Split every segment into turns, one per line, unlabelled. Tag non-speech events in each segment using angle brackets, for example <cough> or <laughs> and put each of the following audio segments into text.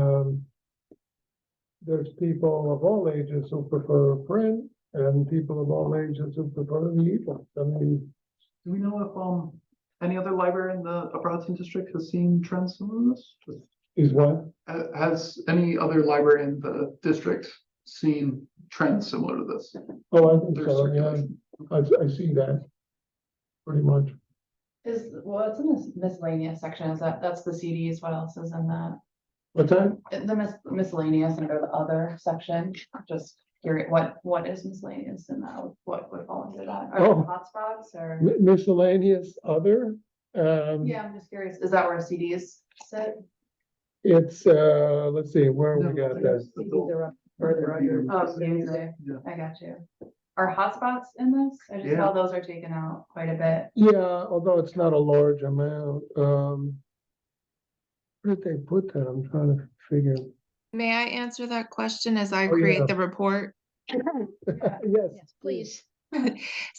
Um, there's people of all ages who prefer print and people of all ages who prefer the ebook. I mean,
Do we know if, um, any other library in the Upper Hudson District has seen trends similar to this? Just-
is what?
ha- Has any other library in the district seen trends similar to this?
Oh, I think
Their
so, yeah,
circulation?
I, I see that. Pretty much.
Is, well, it's in this miscellaneous section, is that, that's the CDs, what else is in that?
What's that?
Uh, The mis- miscellaneous under the other section, just curious, what, what is miscellaneous in that, what would fall into that? Are there
Oh.
hotspots or?
Mi- Miscellaneous other, um.
Yeah, I'm just curious, is that where CDs sit?
It's, uh, let's see, where we
No, I
got that.
guess the bill-
Further up.
Yeah.
Oh, CDs there,
Yeah.
I got you. Are hotspots in this? I just saw those are taken out quite a bit.
Yeah, although it's not a large amount, um. Where did they put that? I'm trying to figure.
May I answer that question as I
Oh, yeah.
create the report?
<laughs>
Yes,
Yes, please.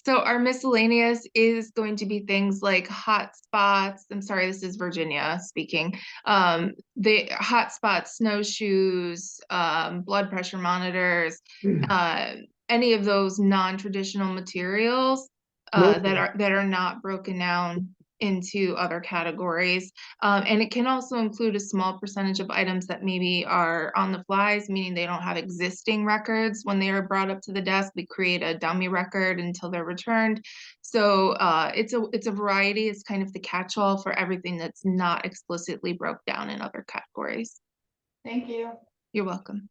So our miscellaneous is going to be things like hotspots. I'm sorry, this is Virginia speaking. Um, the hotspots, snowshoes, um, blood pressure monitors,
<clears throat>
uh, any of those non-traditional materials uh, that
Okay.
are, that are not broken down into other categories. Um, and it can also include a small percentage of items that maybe are on the flies, meaning they don't have existing records. When they are brought up to the desk, we create a dummy record until they're returned. So uh, it's a, it's a variety. It's kind of the catch-all for everything that's not explicitly broke down in other categories.
Thank you.
You're welcome.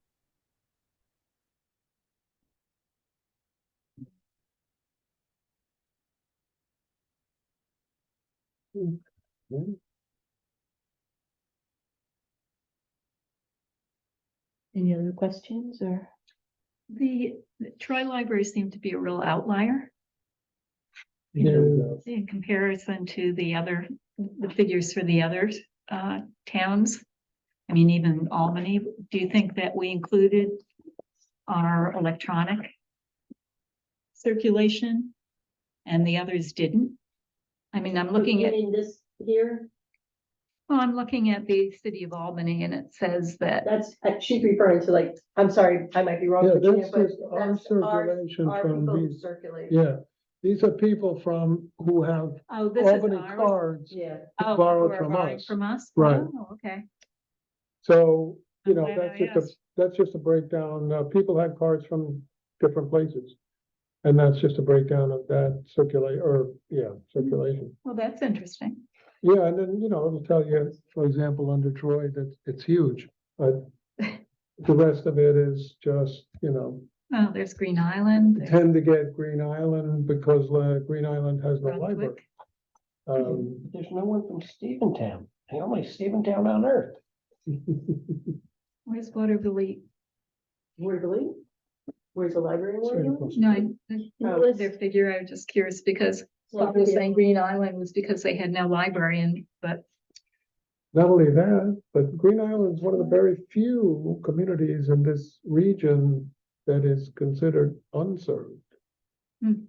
Any other questions or?
The the Troy Library seemed to be a real outlier
Yeah.
in comparison to the other, the figures for the other uh towns. I mean, even Albany, do you think that we included our electronic circulation and the others didn't? I mean, I'm looking at,
In this here,
well, I'm looking at the city of Albany and it says that
that's, uh, she's referring to like, I'm sorry, I might be wrong.
Yeah,
Virginia,
that's
but
just our
that's our-
circulation
our
from
people who
these.
Circulate.
Yeah, these are people from, who have
Oh, this is
Albany
ours.
cards.
Yeah.
Oh,
borrowed
we're
from
borrowing
us.
From us?
Right.
Oh, Okay.
So, you
I'm
know,
glad
that's
I
just a,
asked.
that's just a breakdown. Uh, people had cards from different places. And that's just a breakdown of that circulate, or, yeah, circulation.
Well, that's interesting.
Yeah, and then, you know, it'll tell you, for example, under Troy, that it's huge, but the rest of it is just, you know,
Oh, there's Green Island. there's
tend to get Green Island because uh, Green Island has no library.
Brunswick.
Um,
There's no one from Steventown. The only Steventown on earth.
Where's Waterville?
Waverly? Where's the library? in
Sort of
Waverly?
close.
No, I, I-
No.
their figure, I was just curious because I was
Waverly.
saying Green Island was because they had no library and, but
Not only that, but Green Island's one of the very few communities in this region that is considered unserved.
Hmm.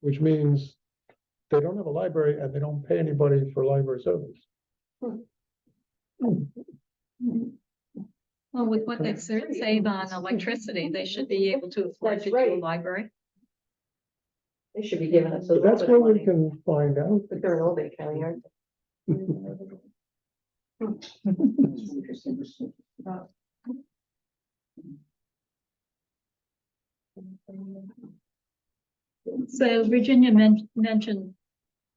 Which means they don't have a library and they don't pay anybody for library service.
well, with what they ser- save on electricity, they should be able to afford
That's
to do a
right.
library.
They should be giving us a
But
little
that's
bit
where
of
we
money.
can find out.
But they're in Old Bay County, aren't
So Virginia men- mentioned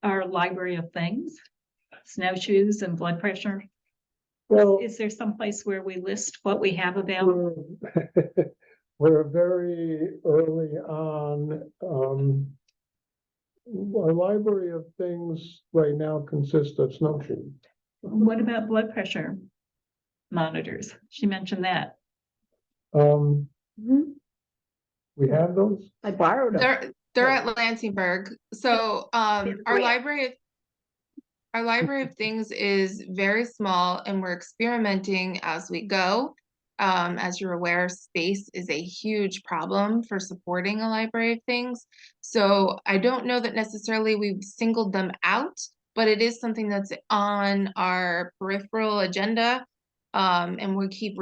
our library of things, snowshoes and blood pressure.
Well,
Is there someplace where we list what we have
Mm.
available?
we're, <laughs> we're very early on, um. Our library of things right now consists of snowshoe.
What about blood pressure monitors? She mentioned that.
Um,
they?
we have those?
I borrowed them.
They're, they're
Yeah.
at Lansingburg, so, um, our
Yeah.
library of. Our library of things is very small and we're experimenting as we go. Um, as you're aware, space is a huge problem for supporting a library of things. So I don't know that necessarily we've singled them out, but it is something that's on our peripheral agenda. Um, and we keep